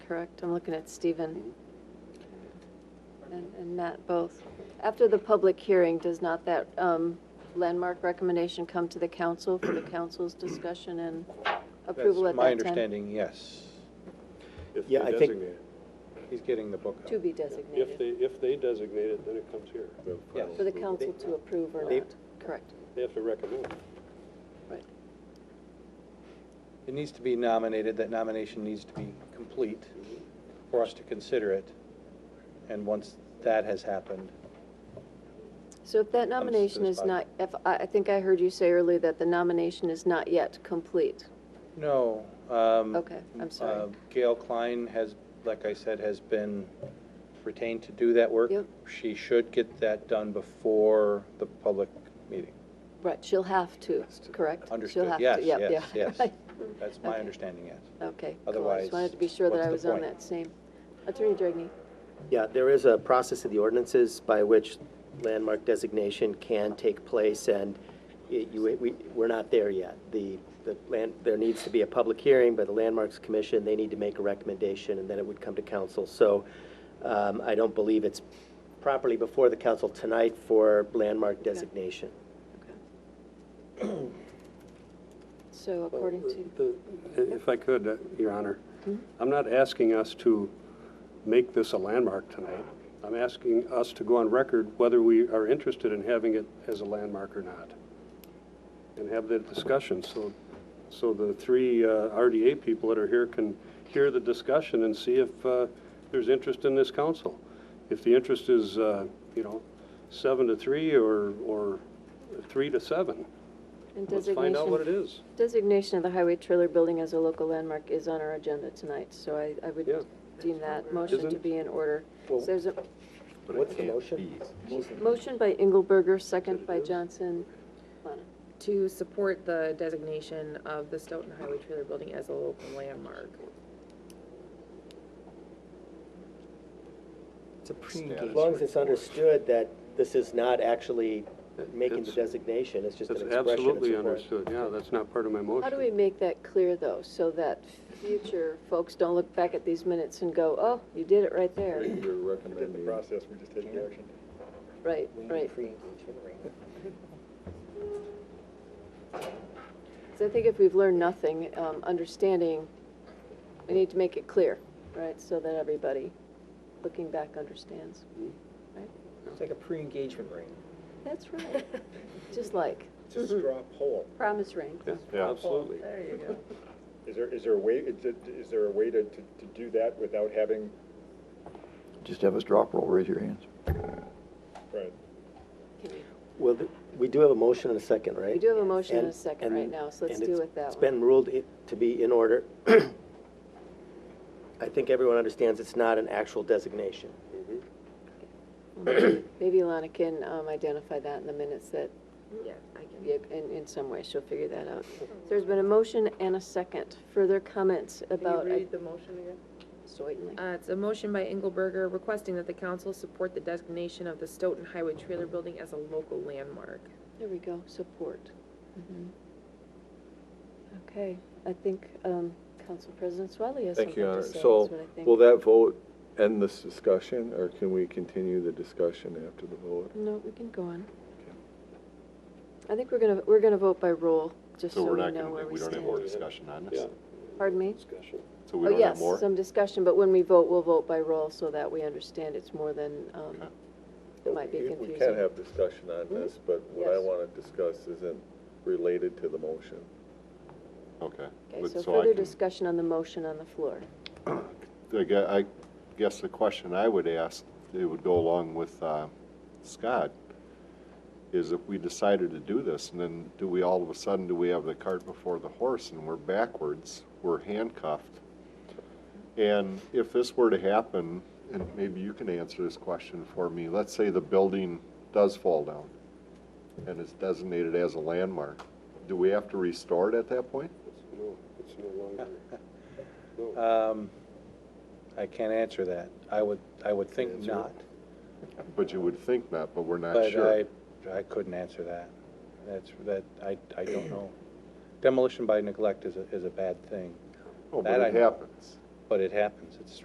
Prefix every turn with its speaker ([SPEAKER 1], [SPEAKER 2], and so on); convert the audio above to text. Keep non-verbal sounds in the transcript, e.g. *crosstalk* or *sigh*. [SPEAKER 1] correct? I'm looking at Stephen and and Matt both. After the public hearing, does not that um, landmark recommendation come to the council for the council's discussion and approval at that time?
[SPEAKER 2] That's my understanding, yes.
[SPEAKER 3] If they
[SPEAKER 4] Yeah, I think-
[SPEAKER 3] designate it.
[SPEAKER 2] He's getting the book out.
[SPEAKER 1] To be
[SPEAKER 3] If they,
[SPEAKER 1] designated,
[SPEAKER 3] if they designate it, then it comes here.
[SPEAKER 2] Yes.
[SPEAKER 1] for the council to approve or
[SPEAKER 4] They-
[SPEAKER 1] not, correct?
[SPEAKER 3] They have to recommend. it.
[SPEAKER 1] Right.
[SPEAKER 2] It needs to be nominated, that nomination needs to be complete for us to consider it. And once that has happened,
[SPEAKER 1] So if that nomination is
[SPEAKER 2] spot.
[SPEAKER 1] not, if, I I think I heard you say earlier that the nomination is not yet complete.
[SPEAKER 2] no. um,
[SPEAKER 1] Okay, I'm sorry.
[SPEAKER 2] uh, Gail Klein has, like I said, has been retained to do that work.
[SPEAKER 1] Yep.
[SPEAKER 2] She should get that done before the public meeting.
[SPEAKER 1] Right, she'll have to, correct? She'll
[SPEAKER 2] Understood,
[SPEAKER 1] have to,
[SPEAKER 2] yes,
[SPEAKER 1] yep,
[SPEAKER 2] yes,
[SPEAKER 1] yeah, *laughs*
[SPEAKER 2] yes.
[SPEAKER 1] right.
[SPEAKER 2] That's my
[SPEAKER 1] Mm-hmm. Okay.
[SPEAKER 2] understanding, yes.
[SPEAKER 1] Okay, cool, I
[SPEAKER 2] Otherwise,
[SPEAKER 1] just wanted to be sure that
[SPEAKER 2] what's
[SPEAKER 1] I
[SPEAKER 2] the
[SPEAKER 1] was on
[SPEAKER 2] point?
[SPEAKER 1] that same. Attorney Dragney,
[SPEAKER 4] Yeah, there is a process of the ordinances by which landmark designation can take place, and it- you, we, we're not there yet. The, the land, there needs to be a public hearing by the Landmarks Commission, they need to make a recommendation, and then it would come to council. So, um, I don't believe it's properly before the council tonight for landmark designation.
[SPEAKER 1] Okay. So according to,
[SPEAKER 3] The- If I could, uh, Your Honor, I'm not asking us to make this a landmark tonight. I'm asking us to go on record whether we are interested in having it as a landmark or not, and have that discussion, so, so the three uh, RDA people that are here can hear the discussion and see if uh, there's interest in this council. If the interest is, uh, you know, seven to three, or, or three to seven,
[SPEAKER 1] and
[SPEAKER 3] let's find out what it
[SPEAKER 1] designation,
[SPEAKER 3] is.
[SPEAKER 1] designation of the highway trailer building as a local landmark is on our agenda tonight, so I, I would
[SPEAKER 3] Yeah.
[SPEAKER 1] deem that motion to
[SPEAKER 3] Isn't-
[SPEAKER 1] be in order. So there's a
[SPEAKER 4] What's the motion?
[SPEAKER 1] motion by Engelberger, second by Johnson. Plana.
[SPEAKER 5] to support the designation of the Stoughton Highway Trailer Building as a local landmark.
[SPEAKER 4] It's a pre-engagement. As long as it's understood that this is not actually making the
[SPEAKER 3] It's-
[SPEAKER 4] designation, it's just an
[SPEAKER 3] That's
[SPEAKER 4] expression of support.
[SPEAKER 3] absolutely understood, yeah, that's not part of my motion.
[SPEAKER 1] How do we make that clear, though, so that future folks don't look back at these minutes and go, oh, you did it right there?
[SPEAKER 6] You're recommending. the process, we're just taking action.
[SPEAKER 1] Right, right. So I think if we've learned nothing, um, understanding, we need to make it clear, right? So that everybody looking back understands, right?
[SPEAKER 6] It's like a pre-engagement ring.
[SPEAKER 1] That's
[SPEAKER 5] *laughs*
[SPEAKER 1] right. Just like
[SPEAKER 6] It's a straw
[SPEAKER 1] Mm-hmm.
[SPEAKER 6] poll.
[SPEAKER 1] promise ring.
[SPEAKER 3] Yeah, absolutely.
[SPEAKER 6] There you go. Is there, is there a way, is it- is there a way to, to to do that without having,
[SPEAKER 7] Just have us drop roll, raise your hands.
[SPEAKER 6] right,
[SPEAKER 4] Well, th- we do have a motion and a second, right?
[SPEAKER 1] We do have a motion and a
[SPEAKER 4] And-
[SPEAKER 1] second right
[SPEAKER 4] and-
[SPEAKER 1] now, so let's
[SPEAKER 4] and
[SPEAKER 1] do
[SPEAKER 4] it's-
[SPEAKER 1] with that
[SPEAKER 4] It's
[SPEAKER 1] one.
[SPEAKER 4] been ruled i- to be in order. *clears throat* I think everyone understands it's not an actual designation.
[SPEAKER 1] um, Maybe Alana can um, identify that in the minutes that
[SPEAKER 5] Yeah, I can.
[SPEAKER 1] Yep, in, in some way, she'll figure that out. There's been a motion and a second. Further comments about?
[SPEAKER 5] the motion again?
[SPEAKER 1] Certainly.
[SPEAKER 5] Uh, it's a motion by Engelberger requesting that the council support the designation of the Stoughton Highway Trailer Building as a local landmark.
[SPEAKER 1] There we go, support. Okay, I think um, Council President Swally has something
[SPEAKER 8] Thank you, Your
[SPEAKER 1] to
[SPEAKER 8] Honor.
[SPEAKER 1] say.
[SPEAKER 8] So,
[SPEAKER 1] that's what I think.
[SPEAKER 8] will that vote end this discussion, or can we continue the discussion after the vote?
[SPEAKER 1] No, we can go on. I think we're gonna, we're gonna vote by roll, just so
[SPEAKER 9] So we're
[SPEAKER 1] we
[SPEAKER 9] not
[SPEAKER 1] know where
[SPEAKER 9] going to,
[SPEAKER 1] we
[SPEAKER 9] we don't have
[SPEAKER 1] stand.
[SPEAKER 9] more discussion on this?
[SPEAKER 1] Pardon me?
[SPEAKER 3] Discussion.
[SPEAKER 9] So
[SPEAKER 1] Oh,
[SPEAKER 9] we don't have
[SPEAKER 1] yes,
[SPEAKER 9] more?
[SPEAKER 1] some discussion, but when we vote, we'll vote by roll so that we understand it's more than, um,
[SPEAKER 9] Okay.
[SPEAKER 1] it might be
[SPEAKER 8] We can
[SPEAKER 1] confusing. Mm-hmm.
[SPEAKER 8] have discussion on this, but what I
[SPEAKER 1] Yes.
[SPEAKER 8] want to discuss isn't related to the motion.
[SPEAKER 9] Okay.
[SPEAKER 1] Okay,
[SPEAKER 9] But
[SPEAKER 1] so
[SPEAKER 9] I
[SPEAKER 1] further
[SPEAKER 9] can-
[SPEAKER 1] discussion on the motion on the floor.
[SPEAKER 9] I gue- I guess the question I would ask, it would go along with uh, Scott, is if we decided to do this, and then do we all of a sudden, do we have the cart before the horse, and we're backwards, we're handcuffed? And if this were to happen, and maybe you can answer this question for me, let's say the building does fall down and is designated as a landmark, do we have to restore it at that point?
[SPEAKER 3] No, it's no longer, no.
[SPEAKER 2] Um, I can't answer that. I would, I would think not,
[SPEAKER 9] But you would think not, but we're not
[SPEAKER 2] but
[SPEAKER 9] sure.
[SPEAKER 2] I, I couldn't answer that. That's, that, I, I don't know. Demolition by neglect is a, is a bad thing,
[SPEAKER 9] Oh,
[SPEAKER 2] that
[SPEAKER 9] but
[SPEAKER 2] I
[SPEAKER 9] it
[SPEAKER 2] know.
[SPEAKER 9] happens.
[SPEAKER 2] but it happens. It's